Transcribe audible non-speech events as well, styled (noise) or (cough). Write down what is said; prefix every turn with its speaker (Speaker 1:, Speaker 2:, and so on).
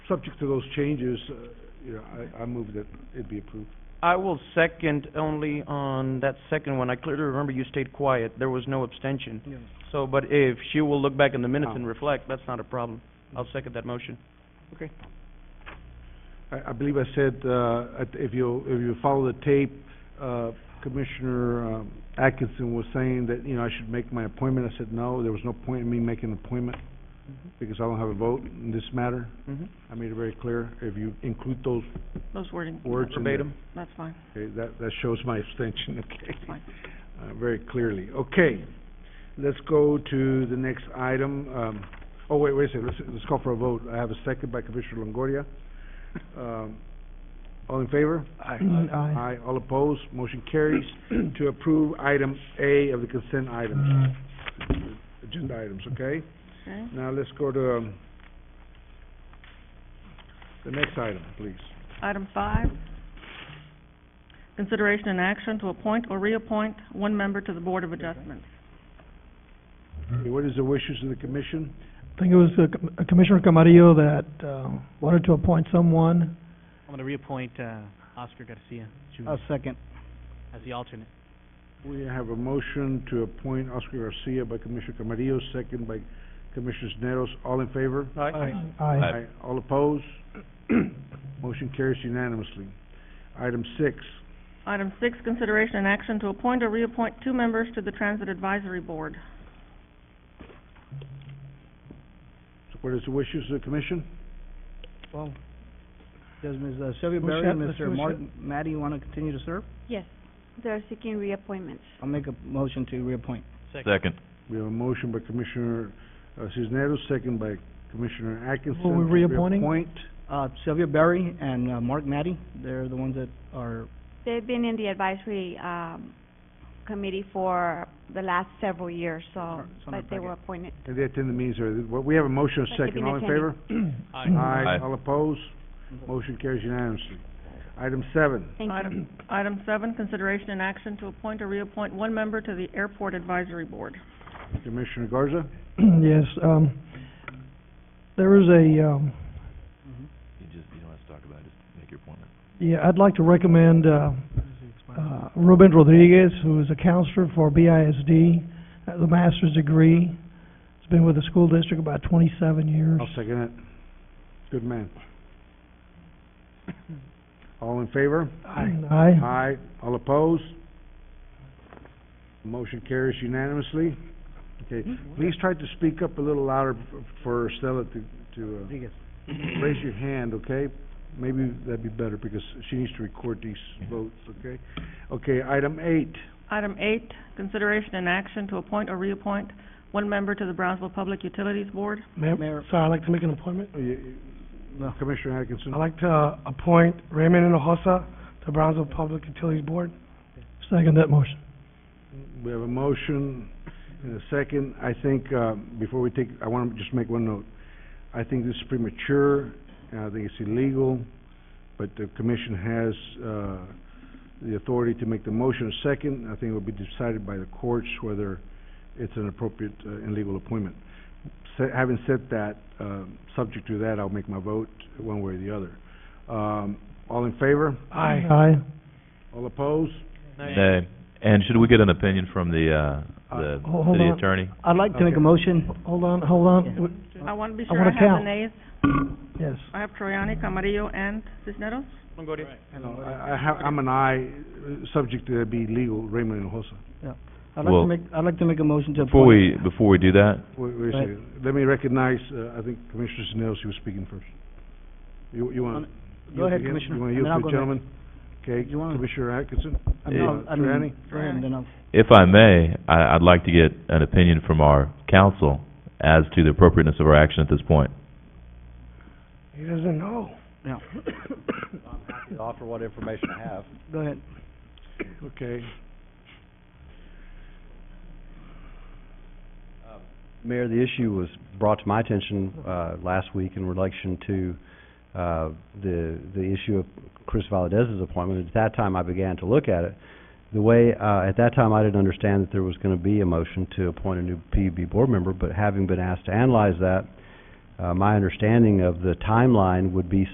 Speaker 1: subject to those changes, uh, you know, I, I move that it be approved.
Speaker 2: I will second only on that second one. I clearly remember you stayed quiet. There was no abstention. So, but if she will look back in the minutes and reflect, that's not a problem. I'll second that motion.
Speaker 1: I, I believe I said, uh, at- if you, if you follow the tape, uh, Commissioner um, Atkinson was saying that, you know, I should make my appointment. I said, no, there was no point in me making an appointment because I don't have a vote in this matter.
Speaker 2: Mhm.
Speaker 1: I made it very clear. If you include those
Speaker 3: Those wording,
Speaker 1: words in there,
Speaker 2: Verbatim.
Speaker 3: that's fine,
Speaker 1: okay, that, that shows my abstention, (laughs) okay?
Speaker 3: that's fine.
Speaker 1: uh, very clearly. Okay, let's go to the next item. Um, oh, wait, wait a second, let's, let's call for a vote. I have a second by Commissioner Longoria. Um, all in favor? Aye. Aye. All opposed? Motion carries (clears throat) to approve item A of the consent
Speaker 4: Mm.
Speaker 1: items, agenda items, okay?
Speaker 3: Okay,
Speaker 1: Now let's go to, um, the next item, please.
Speaker 3: item five, consideration and action to appoint or reappoint one member to the Board of Adjustments.
Speaker 1: Okay, What is the wishes of the commission?
Speaker 4: I think it was uh, Com- uh, Commissioner Camarillo that uh, wanted to appoint someone.
Speaker 5: I'm gonna reappoint, uh, Oscar Garcia Junior
Speaker 6: I'll second.
Speaker 5: as the alternate.
Speaker 1: We have a motion to appoint Oscar Garcia by Commissioner Camarillo, second by Commissioner Neros. All in favor?
Speaker 2: Aye.
Speaker 4: Aye.
Speaker 1: All opposed? (clears throat) Motion carries unanimously. Item six,
Speaker 3: Item six, consideration and action to appoint or reappoint two members to the Transit Advisory Board.
Speaker 1: So what is the wishes of the commission?
Speaker 6: Well, does Ms. uh, Sylvia
Speaker 4: Who's
Speaker 6: Berry and
Speaker 4: that? Let's
Speaker 6: Mr.
Speaker 4: who's
Speaker 6: Martin, Matty wanna continue to serve?
Speaker 7: Yes, they're seeking reappointments.
Speaker 6: I'll make a motion to reappoint.
Speaker 8: Second.
Speaker 1: We have a motion by Commissioner uh, Cisneros, second by Commissioner Atkinson.
Speaker 4: Who are we
Speaker 1: to
Speaker 4: reappointing?
Speaker 1: reappoint.
Speaker 6: Uh, Sylvia Berry and, uh, Mark Matty, they're the ones that are,
Speaker 7: They've been in the advisory, um, committee for the last several years, so,
Speaker 6: It's on our
Speaker 7: but they were
Speaker 6: packet.
Speaker 7: appointed.
Speaker 1: And they attend the meetings, or, well, we have a motion, a
Speaker 7: But they've
Speaker 1: second.
Speaker 7: been
Speaker 1: All in
Speaker 7: attending.
Speaker 1: favor?
Speaker 4: (clears throat)
Speaker 8: Aye.
Speaker 1: All opposed? Motion carries unanimously. Item seven,
Speaker 7: Thank you.
Speaker 3: Item, item seven, consideration and action to appoint or reappoint one member to the Airport Advisory Board.
Speaker 1: Commissioner Garza.
Speaker 4: Yes, um, there was a, um,
Speaker 8: You just, you don't have to talk about it, just make your appointment.
Speaker 4: yeah, I'd like to recommend uh, uh, Ruben Rodriguez, who is a counselor for BISD, has a master's degree. He's been with the school district about twenty-seven years.
Speaker 1: I'll second it. Good man. All in favor?
Speaker 4: Aye.
Speaker 1: Aye. All opposed? Motion carries unanimously. Okay, please try to speak up a little louder f- for Stella to, to,
Speaker 6: Rodriguez.
Speaker 1: uh, raise your hand, okay? Maybe that'd be better because she needs to record these votes, okay? Okay, item eight.
Speaker 3: Item eight, consideration and action to appoint or reappoint one member to the Brownsville Public Utilities Board.
Speaker 6: Mayor.
Speaker 4: sorry, I'd like to make an appointment.
Speaker 1: Uh, you-
Speaker 6: No.
Speaker 1: uh, Commissioner Atkinson?
Speaker 4: I'd like to appoint Raymond Inohosa to Brownsville Public Utilities Board. Second that motion.
Speaker 1: We have a motion and a second. I think, uh, before we take, I want to just make one note. I think this is premature, and I think it's illegal, but the commission has, uh, the authority to make the motion a second. I think it will be decided by the courts whether it's an appropriate uh, and legal appointment. Sa- Having said that, um, subject to that, I'll make my vote one way or the other. Um, All in favor?
Speaker 4: Aye. Aye.
Speaker 1: All opposed?
Speaker 8: Nay. And should we get an opinion from the, uh,
Speaker 1: Uh,
Speaker 8: the
Speaker 4: ho- hold
Speaker 8: city
Speaker 4: on.
Speaker 8: attorney?
Speaker 6: I'd like to make a
Speaker 1: Okay.
Speaker 6: motion,
Speaker 4: Hold on, hold on.
Speaker 3: I want to be
Speaker 4: I
Speaker 3: sure I
Speaker 4: wanna
Speaker 3: have the
Speaker 4: count.
Speaker 3: nays.
Speaker 4: Yes.
Speaker 3: I have Troyani, Camarillo, and Cisneros.
Speaker 2: Longoria.
Speaker 1: No, I, I have, I'm an aye, uh, subject to that be legal, Raymond Hinojosa.
Speaker 6: I'd like to
Speaker 8: Well-
Speaker 6: make, I'd like to make a motion to appoint.
Speaker 8: Before we, before we do that,
Speaker 1: Wait, wait a
Speaker 6: Right.
Speaker 1: second, let me recognize, uh, I think Commissioner Sisnetos, you were speaking first. You, you want?
Speaker 6: Go ahead,
Speaker 1: you-
Speaker 6: Commissioner,
Speaker 1: You want to
Speaker 6: and
Speaker 1: yield
Speaker 6: then I'll
Speaker 1: to the
Speaker 6: go next.
Speaker 1: gentleman? Okay,
Speaker 6: You wanna-
Speaker 1: Commissioner Atkinson?
Speaker 6: I mean, I'll- I mean,
Speaker 1: Triani?
Speaker 6: Triani, uh, then I'll-
Speaker 8: if I may, I, I'd like to get an opinion from our council as to the appropriateness of our action at this point.
Speaker 4: He doesn't know.
Speaker 9: offer what information I have.
Speaker 6: go ahead.
Speaker 1: Okay,
Speaker 9: Mayor, the issue was brought to my attention, uh, last week in relation to, uh, the, the issue of Chris Valadez's appointment. At that time, I began to look at it. The way, uh, at that time, I didn't understand that there was gonna be a motion to appoint a new PUB board member, but having been asked to analyze that, Uh, my understanding of the timeline would be